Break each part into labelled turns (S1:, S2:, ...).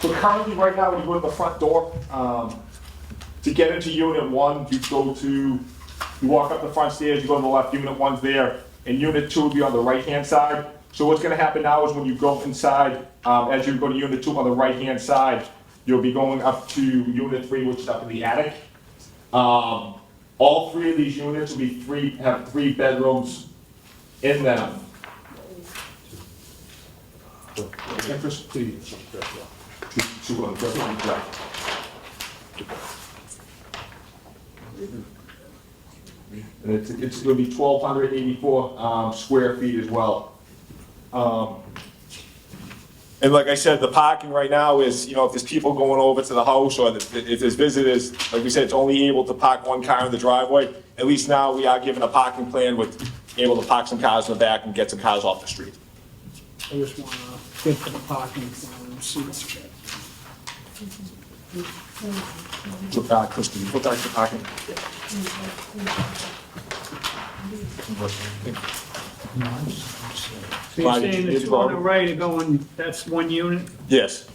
S1: So currently, right now, when you go to the front door, um, to get into unit one, you go to, you walk up the front stairs, you go to the left, unit one's there, and unit two would be on the right-hand side. So what's gonna happen now is when you go inside, um, as you go to unit two on the right-hand side, you'll be going up to unit three, which is up in the attic. Um, all three of these units will be three, have three bedrooms in them. Interest, please. Two- two on the first one, correct. And it's, it's gonna be twelve hundred eighty-four, um, square feet as well. Um, And like I said, the parking right now is, you know, if there's people going over to the house or if if there's visitors, like we said, it's only able to park one car in the driveway. At least now we are given a parking plan with able to park some cars in the back and get some cars off the street.
S2: I just wanna get the parking plan and see what's checked.
S1: Look, uh, Kristen, look at the parking.
S2: So you're
S1: Fine,
S2: saying
S1: it's
S2: it's on the
S1: wrong.
S2: right, going, that's one unit?
S1: Yes.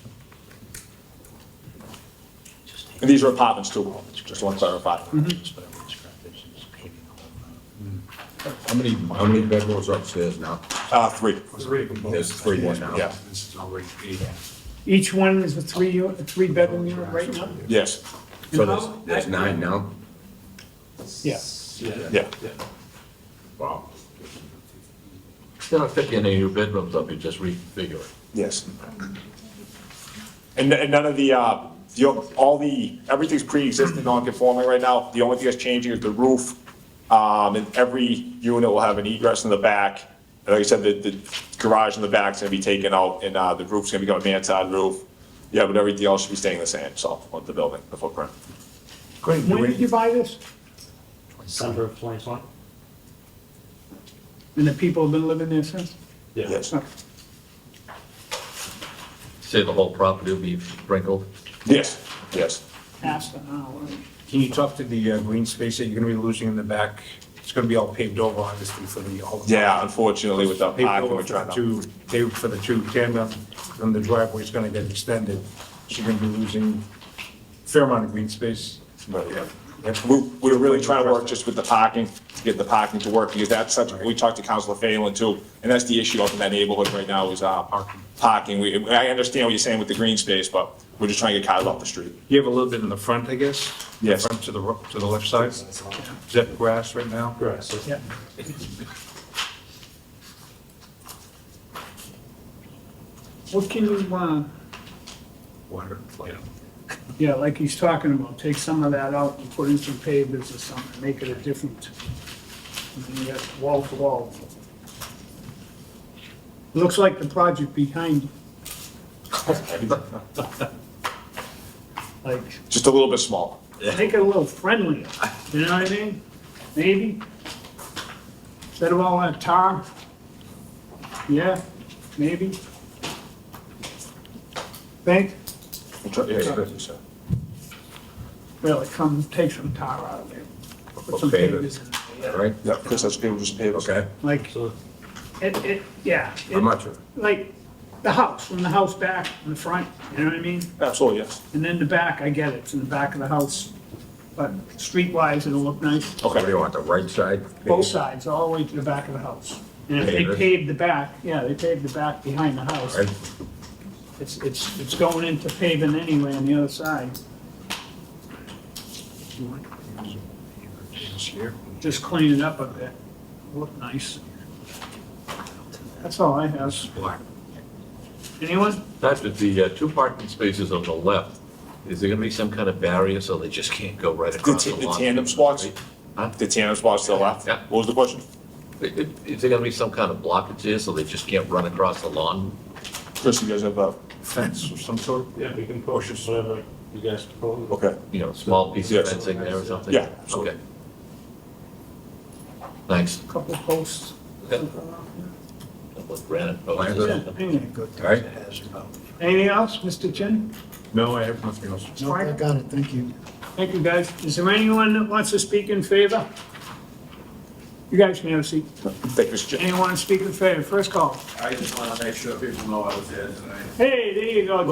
S1: And these are apartments too, just want to clarify.
S3: How many, how many bedrooms upstairs now?
S1: Uh, three.
S3: There's three now.
S1: Yeah,
S4: This is already eight.
S2: Each one is a three unit, a three bedroom unit right now?
S1: yes,
S3: So there's, there's nine now?
S2: Yeah.
S1: yeah.
S3: Wow.
S5: You're not picking any new bedrooms up, you're just reconfiguring.
S1: Yes. And, and none of the, uh, the, all the, everything's pre-existing non-conforming right now. The only thing that's changing is the roof. Um, and every unit will have an egress in the back. And like I said, the, the garage in the back's gonna be taken out and, uh, the roof's gonna become a mansard roof. Yeah, but everything else should be staying the same, so, on the building, the footprint.
S5: Great.
S2: When did you buy this?
S6: December of 2020?
S2: And the people have been living there since?
S1: Yes.
S5: Say the whole property will be sprinkled.
S1: Yes, yes.
S2: Past an hour.
S4: Can you talk to the uh, green space that you're gonna be losing in the back? It's gonna be all paved over, obviously, for the, all the.
S1: Yeah, unfortunately, with the
S4: Paved
S1: parking,
S4: over
S1: we're
S4: for the
S1: trying to.
S4: two, paved for the two tandem, and the driveway's gonna get extended. So you're gonna be losing a fair amount of green space.
S1: Right, yeah.
S4: Yep.
S1: We, we were really trying to work just with the parking, to get the parking to work, because that's such, we talked to Councilor Phelan too, and that's the issue up in that neighborhood right now is, uh,
S4: Parking.
S1: parking. We, I understand what you're saying with the green space, but we're just trying to get cars off the street.
S4: You have a little bit in the front, I guess?
S1: Yes.
S4: Front to the, ro- to the left side? Is that grass right now?
S6: Grass. so-
S2: Yeah. What can you, uh,
S4: Water, flooding.
S2: yeah, like he's talking about, take some of that out and put in some pavers or something, make it a different. I mean, you got wall to wall. Looks like the project behind you, like,
S1: Just a little bit smaller.
S2: make it a little friendlier, you know what I mean? Maybe. Instead of all that tar. Yeah, maybe. Think,
S1: We'll try- yeah, yeah,
S2: well, it come, take some tar out of there. Put some
S3: Okay,
S2: pavers in there,
S3: All right,
S1: Yeah, Chris, that's okay, we'll just pay those.
S3: okay,
S2: yeah. Like,
S6: So
S2: it, it, yeah. it-
S3: how much?
S2: Like, the house, from the house back, in the front, you know what I mean?
S1: Absolutely, yes.
S2: And then the back, I get it, it's in the back of the house. But streetwise, it'll look nice.
S3: What do you want, the right side?
S2: both sides, all the way to the back of the house. And if they
S3: Pavers.
S2: paved the back, yeah, they paved the back behind the house.
S3: Right?
S2: It's, it's, it's going into paving anyway on the other side. Just clean it up a bit, look nice. That's all I have.
S4: Black.
S2: Anyone?
S5: Patrick, the uh, two parking spaces on the left, is there gonna be some kind of barrier so they just can't go right
S1: The
S5: across the
S1: ta- the
S5: lawn?
S1: tandem spots,
S5: Huh?
S1: the tandem spots to the left.
S5: Yeah.
S1: What was the question?
S5: Is is there gonna be some kind of blockage here so they just can't run across the lawn?
S1: Chris, you guys have, uh,
S4: Fence of some sort?
S6: Yeah, we can push it whatever you guys propose.
S1: okay,
S5: You know, small piece of
S1: Yes.
S5: fencing there or something?
S1: Yeah,
S5: Okay. Thanks.
S2: Couple posts.
S5: Yeah. With Granite. posts or
S3: Lantern.
S5: something.
S2: Anything
S3: All right,
S2: Anything else, Mr. Chin?
S4: No, I have nothing else.
S7: No, I got it, thank you.
S2: Thank you, guys. Is there anyone that wants to speak in favor? You guys may have a seat.
S1: thank you, Mr. Chair.
S2: Anyone speak in favor? First call.
S8: I just want to make sure people know I was there tonight.
S2: Hey, there you go,